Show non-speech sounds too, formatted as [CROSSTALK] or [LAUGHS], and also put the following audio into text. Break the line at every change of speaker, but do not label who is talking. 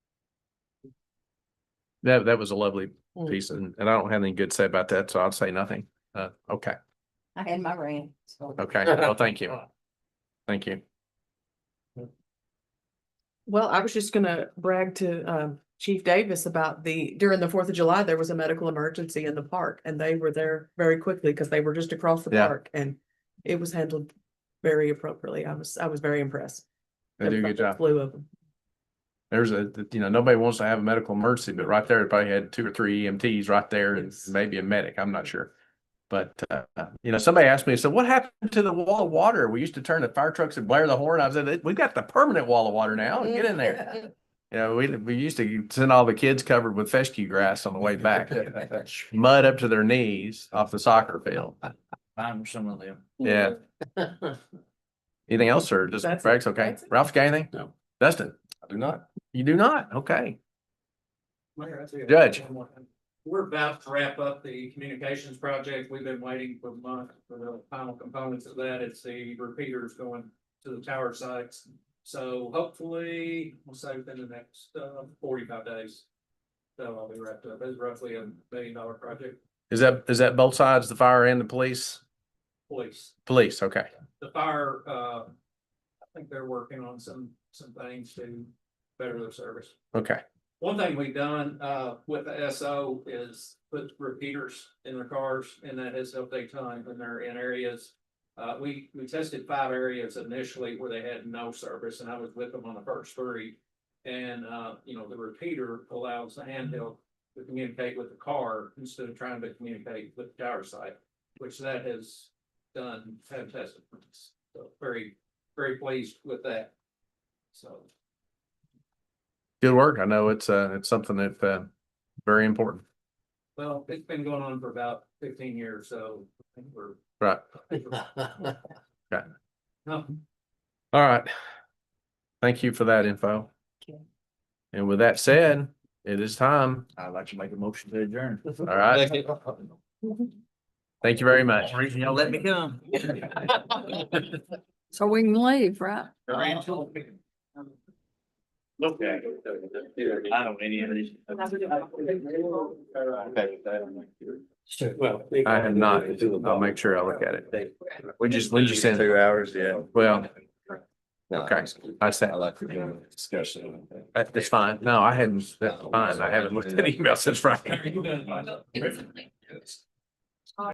That, that was a lovely
Mm.
piece and, and I don't have anything good to say about that, so I'll say nothing. Uh, okay,
I had my rant, so.
okay. Well, thank you. Thank you.
Well, I was just gonna brag to um Chief Davis about the, during the Fourth of July, there was a medical emergency in the park and they were there very quickly because they were just across the
Yeah.
park and it was handled very appropriately. I was, I was very impressed.
They do a good job.
Flew of them.
There's a, you know, nobody wants to have a medical emergency, but right there, everybody had two or three EMTs right there and
Yes.
maybe a medic, I'm not sure. But, uh, you know, somebody asked me, so what happened to the wall of water? We used to turn the fire trucks and blare the horn. I said, we've got the permanent wall of water now. Oh, Get in
Mm.
there. You know, we, we used to send all the kids covered with fescue grass on the way
[LAUGHS]
back, mud up to their knees off the soccer field.
I'm some of them.
[LAUGHS]
Yeah. Anything else or just
That's it.
Greg's okay?
That's it.
Ralph's got anything?
No.
Dustin?
I do not.
You do not? Okay. Judge.
Judge. We're about to wrap up the communications project. We've been waiting for months for the final components of that. It's the repeaters going to the tower sites. So hopefully, we'll say within the next uh, forty-five days. That'll all be wrapped up. It's roughly a million dollar project,
Is that, is that both sides, the fire and the police?
police.
Police, okay.
the fire, uh, I think they're working on some, some things to better their service.
Okay.
One thing we've done, uh, with the SO is put repeaters in their cars and that has helped a ton when they're in areas. Uh, we, we tested five areas initially where they had no service and I was with them on the first three. And, uh, you know, the repeater allows the handheld to communicate with the car instead of trying to communicate with the tower site, which that has done fantastic. So very, very pleased with that. So.
Good work. I know it's, uh, it's something that, uh, very important.
Well, it's been going on for about fifteen years, so I think we're.
Right.
Okay. No,
All right. Thank you for that info.
Okay.
And with that said, it is time.
I'd like to make a motion to adjourn.
All right. Thank you very much.
Reason y'all let me come.
[LAUGHS] So we can leave, right?
Okay. I don't any of these.
Well.
I have not. I'll make sure I look at it. We just, we just sent,
Two hours, yeah.
well,
Okay.
I said,
like the discussion.
that- that's fine. No, I hadn't, that's fine. I haven't looked at email since Friday.
Very good.